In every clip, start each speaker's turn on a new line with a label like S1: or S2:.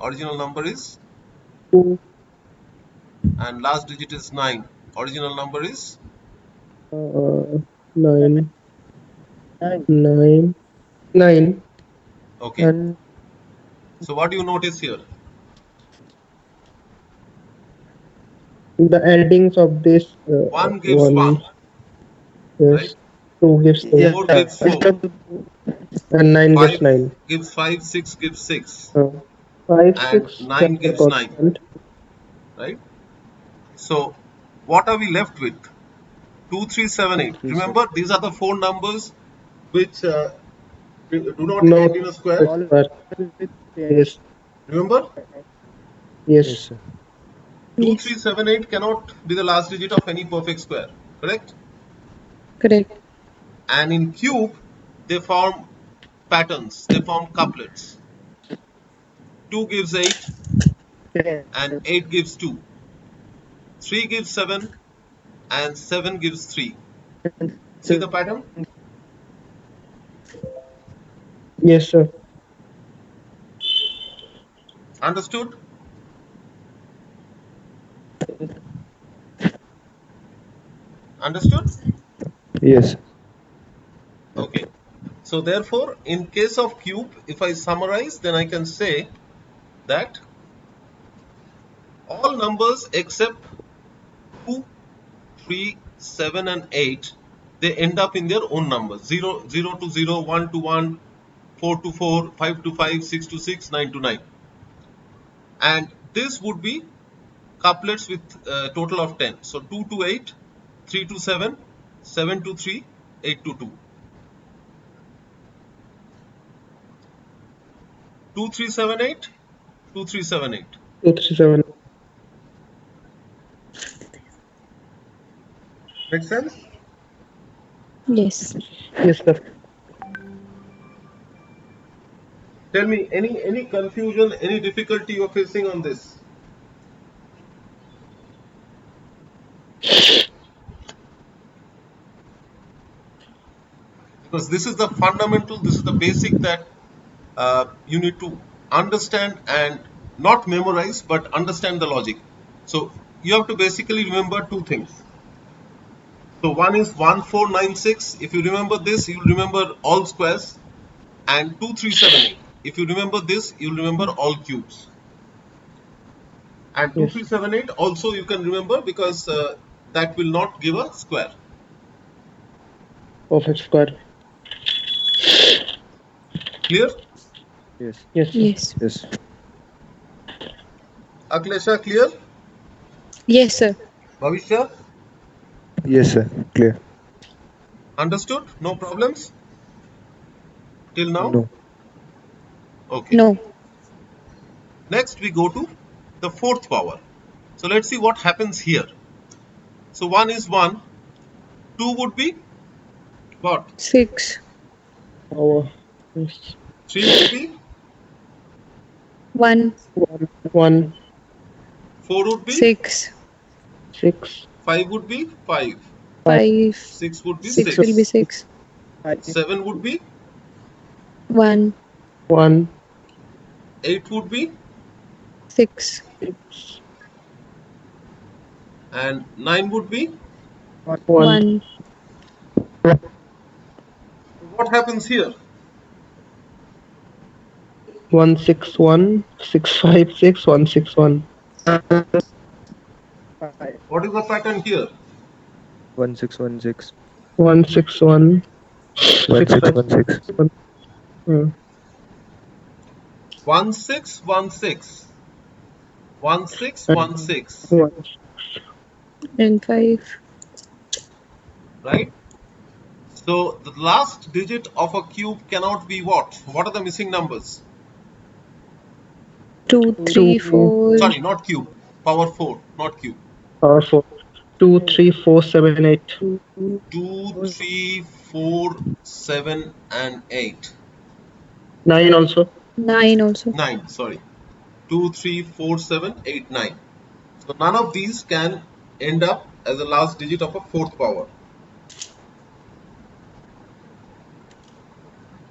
S1: original number is and last digit is 9 original number is
S2: Uh, nine. Nine. Nine.
S1: okay
S2: And
S1: so what do you notice here
S2: the addings of this. Uh,
S1: one gives one,
S2: yes.
S1: right?
S2: Two gives two.
S1: Four gives four.
S2: And nine
S1: Five.
S2: gives nine.
S1: gives 5 6 gives 6
S2: Uh, five,
S1: And
S2: six.
S1: nine
S2: seven,
S1: gives nine.
S2: constant.
S1: right so what are we left with 2378 remember these are the four numbers which uh, do do not
S2: No.
S1: end in a square
S2: Yes.
S1: remember
S2: Yes.
S3: sir.
S1: 2378 cannot be the last digit of any perfect square correct
S4: Correct.
S1: and in cube they form patterns they form couplets 2 gives 8 and 8 gives 2 3 gives 7 and 7 gives 3 see the pattern
S2: Yes, sir.
S1: understood understood
S3: Yes.
S1: Okay. So therefore, in case of cube, if I summarize, then I can say that all numbers except 2, 3, 7 and 8, they end up in their own numbers. 0, 0 to 0, 1 to 1, 4 to 4, 5 to 5, 6 to 6, 9 to 9. And this would be couplets with uh, total of 10. So 2 to 8, 3 to 7, 7 to 3, 8 to 2. 2378 2378
S2: Two, three, seven.
S1: make sense
S4: Yes.
S2: Yes, sir.
S1: tell me any any confusion any difficulty you're facing on this because this is the fundamental this is the basic that uh, you need to understand and not memorize but understand the logic so you have to basically remember two things so one is 1496 if you remember this you'll remember all squares and 2378. If you remember this, you'll remember all cubes. And 2378 also you can remember because uh, that will not give a square.
S2: Perfect square.
S1: Clear?
S3: Yes.
S2: Yes. sir.
S4: Yes.
S3: Yes.
S1: Aklesha, clear?
S4: Yes, sir.
S1: Bhavishya,
S3: Yes, sir. Clear.
S1: understood? No problems? Till now?
S3: No.
S1: Okay.
S4: No.
S1: Next we go to the fourth power. So let's see what happens here. So 1 is 1. 2 would be what?
S4: Six.
S2: Power. Yes.
S1: 3 would be?
S4: One.
S2: One, one,
S1: 4 would be?
S4: Six.
S2: six,
S1: 5 would be 5.
S4: Five.
S1: 6 would be
S4: Six
S1: 6.
S4: will be six.
S2: five,
S1: 7 would be,
S4: One.
S2: one,
S1: 8 would be,
S4: Six.
S2: six,
S1: and 9 would be.
S2: one,
S4: One.
S1: What happens here?
S2: one, six, one, six, five, six, one, six, one.
S1: What is the pattern here?
S3: One six one six.
S2: One, six, one,
S3: One
S2: Six,
S3: six
S2: five.
S3: one six.
S2: one. Hmm.
S1: 1 6 1 6. 1 6 1 6.
S2: One,
S4: And five.
S1: Right? So the last digit of a cube cannot be what? What are the missing numbers?
S4: Two.
S2: Two.
S4: Three. Four.
S1: Sorry, not cube. Power 4, not cube.
S2: power four. Two, three, four, seven, eight.
S1: 2, 3, 4, 7, and 8.
S2: Nine also.
S4: Nine also.
S1: 9 sorry 2 3 4 7 8 9 so none of these can end up as the last digit of a fourth power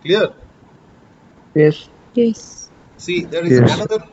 S1: clear
S2: Yes.
S4: Yes.
S1: see there is
S3: Yes.
S1: another